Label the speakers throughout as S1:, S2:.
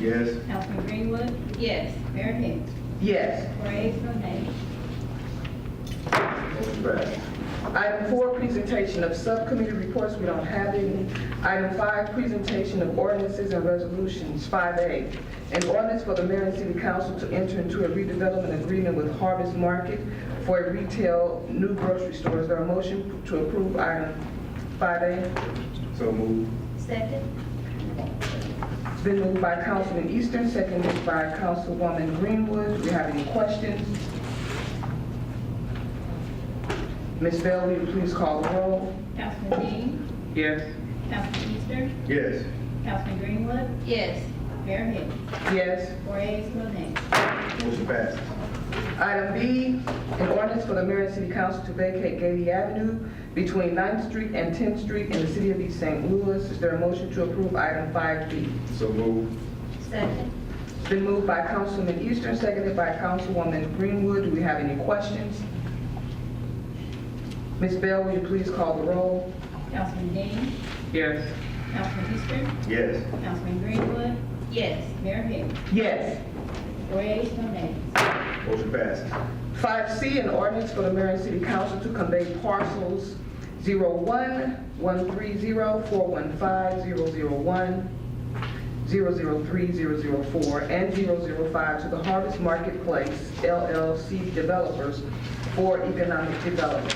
S1: Yes.
S2: Councilman Greenwood,
S3: Yes.
S2: Mayor Hicks,
S4: Yes.
S2: four ayes, no nays.
S1: Motion passes.
S4: Item four, presentation of subcommittee reports, we don't have any. Item five, presentation of ordinances and resolutions. Five A, an ordinance for the mayor and city council to enter into a redevelopment agreement with Harvest Market for a retail new grocery store. Is there a motion to approve item five A?
S1: So moved.
S3: Second?
S4: It's been moved by Councilman Eastern, seconded by Councilwoman Greenwood. Do we have any questions? Ms. Bell, will you please call the roll?
S2: Councilman Dean,
S4: Yes.
S2: Councilman Easter,
S1: Yes.
S2: Councilman Greenwood,
S3: Yes.
S2: Mayor Hicks,
S4: Yes.
S2: four ayes, no nays.
S1: Motion passes.
S4: Item B, an ordinance for the mayor and city council to vacate Gady Avenue between 9th Street and 10th Street in the city of East St. Louis. Is there a motion to approve item 5B?
S1: So moved.
S3: Second?
S4: It's been moved by Councilman Eastern, seconded by Councilwoman Greenwood. Do we have any questions? Ms. Bell, will you please call the roll?
S2: Councilman Dean,
S4: Yes.
S2: Councilman Easter,
S1: Yes.
S2: Councilman Greenwood,
S3: Yes.
S2: Mayor Hicks,
S4: Yes.
S2: four ayes, no nays.
S1: Motion passes.
S4: 5C, an ordinance for the mayor and city council to convey parcels 01, 130, 415, 001, 003, 004, and 005 to the Harvest Marketplace LLC developers for economic development.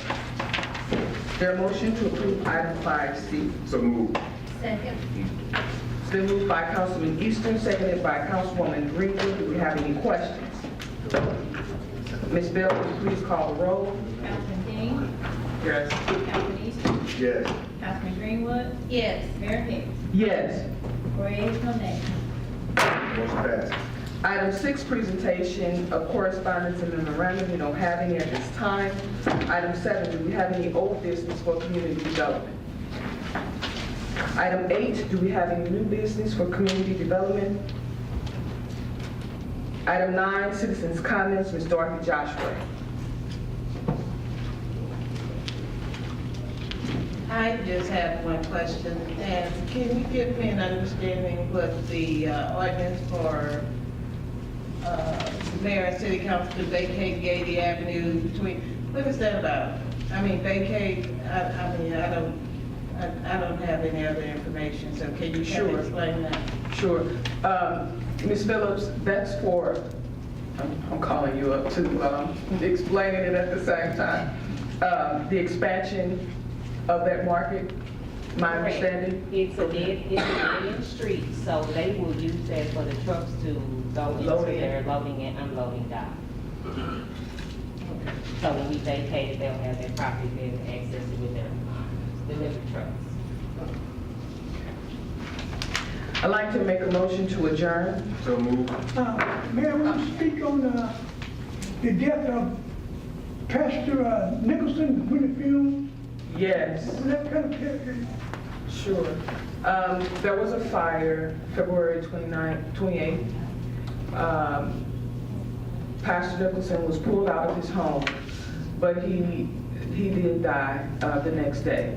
S4: Their motion to approve item 5C.
S1: So moved.
S3: Second?
S4: It's been moved by Councilman Eastern, seconded by Councilwoman Greenwood. Do we have any questions? Ms. Bell, will you please call the roll?
S2: Councilman Dean,
S4: Yes.
S2: Councilman Easter,
S1: Yes.
S2: Councilman Greenwood,
S3: Yes.
S2: Mayor Hicks,
S4: Yes.
S2: four ayes, no nays.
S1: Motion passes.
S4: Item six, presentation of correspondence and memorandum, we don't have any at this time. Item seven, do we have any old business for community development? Item eight, do we have any new business for community development? Item nine, citizens' comments, Ms. Dorothy Joshua.
S5: I just have one question, and can you give me an understanding what the uh, ordinance for uh, mayor and city council to vacate Gady Avenue between, what is that about? I mean, vacate, I, I mean, I don't, I I don't have any other information, so can you kind
S4: Sure.
S5: of explain that?
S4: Sure. Um, Ms. Phillips, that's for, I'm- I'm calling you up to um, explaining it at the same time. Um, The expansion of that market, my
S6: Correct.
S4: understanding?
S6: It's a dead, it's a dead street, so they will use that for the trucks to go into
S5: Loading.
S6: their loading and unloading dock. So when we vacate it, they'll have their property, they'll access it with their, um, delivery trucks.
S4: I'd like to make a motion to adjourn.
S1: So moved.
S7: Uh, Mayor, will you speak on uh, the death of Pastor uh, Nicholson, Winfield?
S4: Yes.
S7: Was that kind of,
S4: Sure. Um, There was a fire February 29th, 28th. Um, Pastor Nicholson was pulled out of his home, but he, he did die uh, the next day.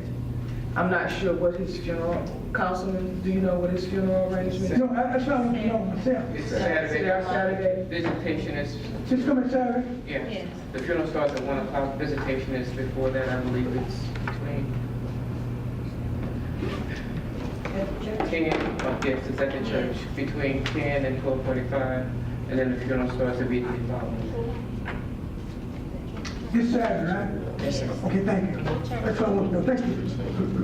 S4: I'm not sure what his funeral, Councilman, do you know what his funeral arrangement is?
S7: no, I- that's what I want to know myself.
S8: It's
S4: Saturday,
S8: Saturday.
S4: Saturday?
S8: Visitation is,
S7: Just coming Saturday,
S8: yeah.
S3: Yes.
S8: The funeral starts at one o'clock, visitation is before that, I believe it's between. Ten, oh, yes, it's at the church, between ten and twelve forty-five, and then the funeral starts immediately following.
S7: this Saturday, right? Yes, sir. Okay, thank you. That's all I want to know, thank you.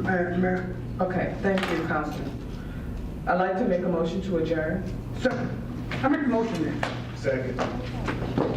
S7: Mayor, Mayor,
S4: Okay, thank you, Councilman. I'd like to make a motion to adjourn.
S7: second. I make a motion then.
S1: Second.